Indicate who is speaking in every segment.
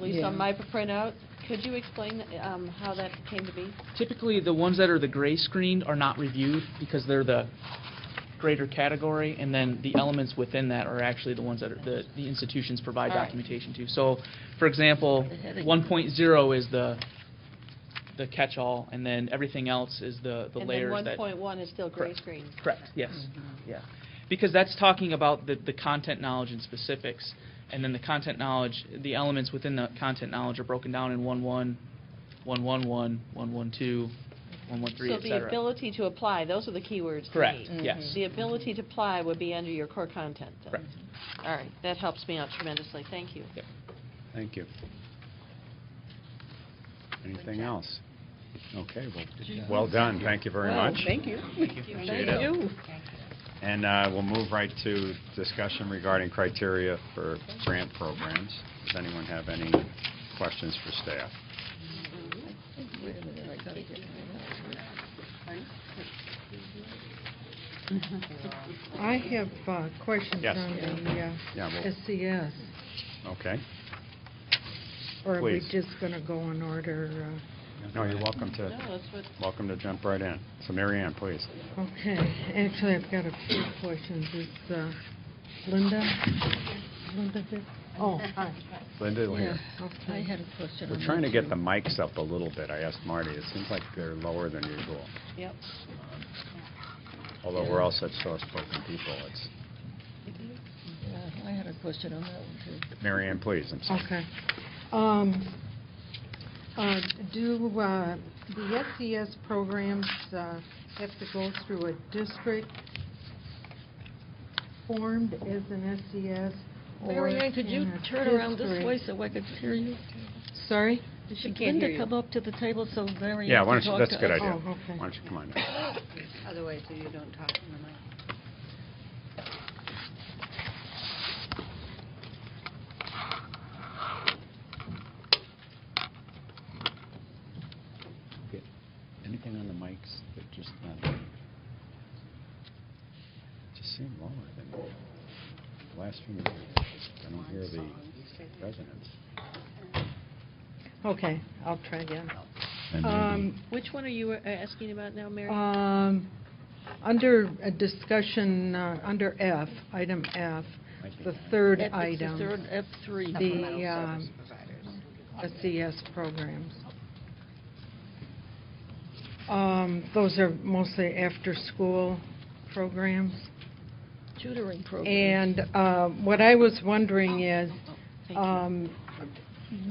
Speaker 1: least on
Speaker 2: Yeah.
Speaker 1: my printout. Could you explain um, how that came to be?
Speaker 2: Typically, the ones that are the gray screened are not reviewed because they're the greater category, and then the elements within that are actually the ones that are, the the institutions provide
Speaker 1: All right.
Speaker 2: documentation to. So, for example,
Speaker 3: The heading.
Speaker 2: 1.0 is the, the catch-all, and then everything else is the the layers that...
Speaker 1: And then Mm-hmm. 1.1 is still gray
Speaker 2: Correct.
Speaker 1: screen.
Speaker 2: Correct, yes,
Speaker 4: Mm-hmm.
Speaker 2: yeah. Because that's talking about the, the content knowledge and specifics, and then the content knowledge, the elements within the content knowledge are broken down in one one, one one one, one one two, one one three,
Speaker 1: So
Speaker 2: et
Speaker 1: the
Speaker 2: cetera.
Speaker 1: ability to apply, those are the keywords to
Speaker 2: Correct,
Speaker 1: me.
Speaker 2: yes.
Speaker 1: The ability to apply would be under your core content then.
Speaker 2: Correct.
Speaker 1: All right, that helps me out tremendously, thank you.
Speaker 2: Yep.
Speaker 5: Thank you. Anything else? Okay, well, well done, thank you very much.
Speaker 3: Oh, Thank you.
Speaker 5: Appreciate it. And uh, we'll move right to discussion regarding criteria for grant programs. Does anyone have any questions for staff?
Speaker 3: Wait a minute, I gotta get my
Speaker 4: I have uh, questions
Speaker 5: Yes.
Speaker 4: on the
Speaker 5: Yeah,
Speaker 4: uh,
Speaker 5: well,
Speaker 4: SES.
Speaker 5: okay.
Speaker 4: Or are we
Speaker 5: Please.
Speaker 4: just going to go in order? uh,
Speaker 5: No, you're welcome
Speaker 1: No,
Speaker 5: to,
Speaker 1: that's what,
Speaker 5: welcome to jump right in. So Mary Ann, please.
Speaker 4: uh, Okay, actually, I've got a few questions. Is uh, Linda, Linda here? Oh, hi.
Speaker 5: Linda, we're here.
Speaker 4: Yeah,
Speaker 3: notes. I
Speaker 4: okay.
Speaker 3: had a question on
Speaker 5: We're
Speaker 3: that,
Speaker 5: trying to get
Speaker 3: too.
Speaker 5: the mics up a little bit. I asked Marty, it seems like they're lower than usual.
Speaker 1: yep.
Speaker 5: Although we're all such soft-spoken people, it's,
Speaker 3: Yeah, I had a question on that one, too.
Speaker 5: Mary Ann, please, I'm sorry.
Speaker 4: Okay. Um, uh, Do uh, the SES programs uh, have to go through a district formed as an SES? or
Speaker 3: Mary Ann, could you
Speaker 4: can a
Speaker 3: turn around this
Speaker 4: district-
Speaker 3: way so I could hear you?
Speaker 4: Sorry?
Speaker 1: She
Speaker 3: Should
Speaker 1: can't hear
Speaker 3: Linda
Speaker 1: you.
Speaker 3: come up to the table so Mary
Speaker 5: Yeah,
Speaker 3: Ann
Speaker 5: why
Speaker 3: can
Speaker 5: don't
Speaker 3: talk
Speaker 5: you, that's a
Speaker 3: to
Speaker 5: good
Speaker 3: us?
Speaker 5: idea.
Speaker 4: Oh, okay.
Speaker 5: Why don't you come on up?
Speaker 6: Otherwise, so you don't talk in the mic.
Speaker 5: Anything on the mics that just not, just seem lower than the last few minutes. I don't hear the resonance.
Speaker 4: Okay, I'll try again.
Speaker 5: And maybe-
Speaker 4: Um,
Speaker 1: Which one are you uh, asking about now, Mary?
Speaker 4: um, Under a discussion, uh, under F, item F,
Speaker 5: Might be
Speaker 4: the
Speaker 5: that.
Speaker 4: third
Speaker 3: F- it's the
Speaker 4: item.
Speaker 3: third F3.
Speaker 4: The um, SES programs. Um, Those are mostly after-school programs.
Speaker 3: Tutoring program.
Speaker 4: And uh, what I was wondering is,
Speaker 1: Oh, Thank you.
Speaker 4: um,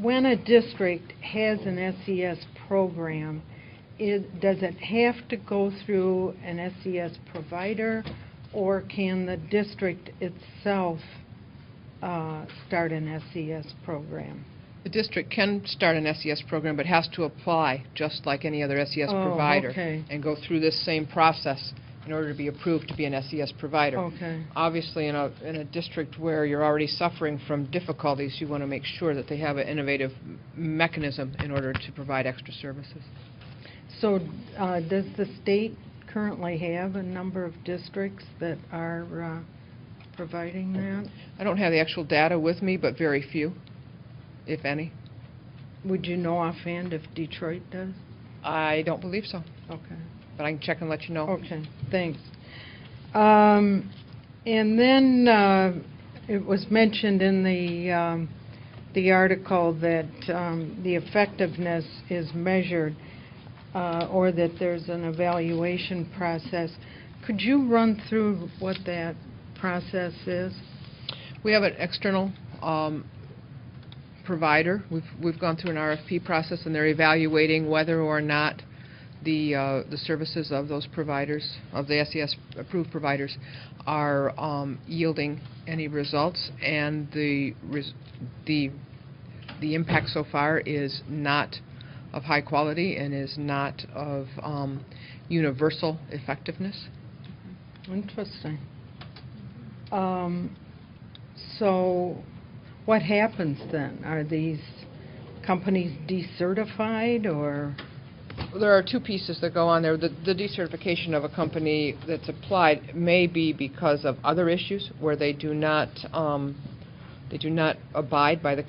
Speaker 4: when a district has an SES program, it, does it have to go through an SES provider, or can the district itself uh, start an SES program?
Speaker 7: The district can start an SES program, but has to apply, just like any other SES
Speaker 4: Oh,
Speaker 7: provider.
Speaker 4: okay.
Speaker 7: And go through this same process in order to be approved to be an SES provider.
Speaker 4: Okay,
Speaker 7: Obviously, in a, in a district where you're already suffering from difficulties, you want to make sure that they have an innovative m- mechanism in order to provide extra services.
Speaker 4: so uh, does the state currently have a number of districts that are uh, providing that?
Speaker 7: I don't have the actual data with me, but very few, if any.
Speaker 4: Would you know offhand if Detroit does?
Speaker 7: I don't believe so,
Speaker 4: Okay.
Speaker 7: but I can check and let you know.
Speaker 4: Okay, thanks. Um, And then uh, it was mentioned in the, um, the article that um, the effectiveness is measured, uh, or that there's an evaluation process. Could you run through what that process is?
Speaker 7: We have an external um, provider. We've we've gone through an RFP process, and they're evaluating whether or not the uh, the services of those providers, of the SES-approved providers, are um, yielding any results. And the res- the the impact so far is not of high quality and is not of um, universal effectiveness.
Speaker 4: Interesting. Um, So what happens then? Are these companies decertified, or?
Speaker 7: There are two pieces that go on there. The the decertification of a company that's applied may be because of other issues where they do not, um, they do not abide by the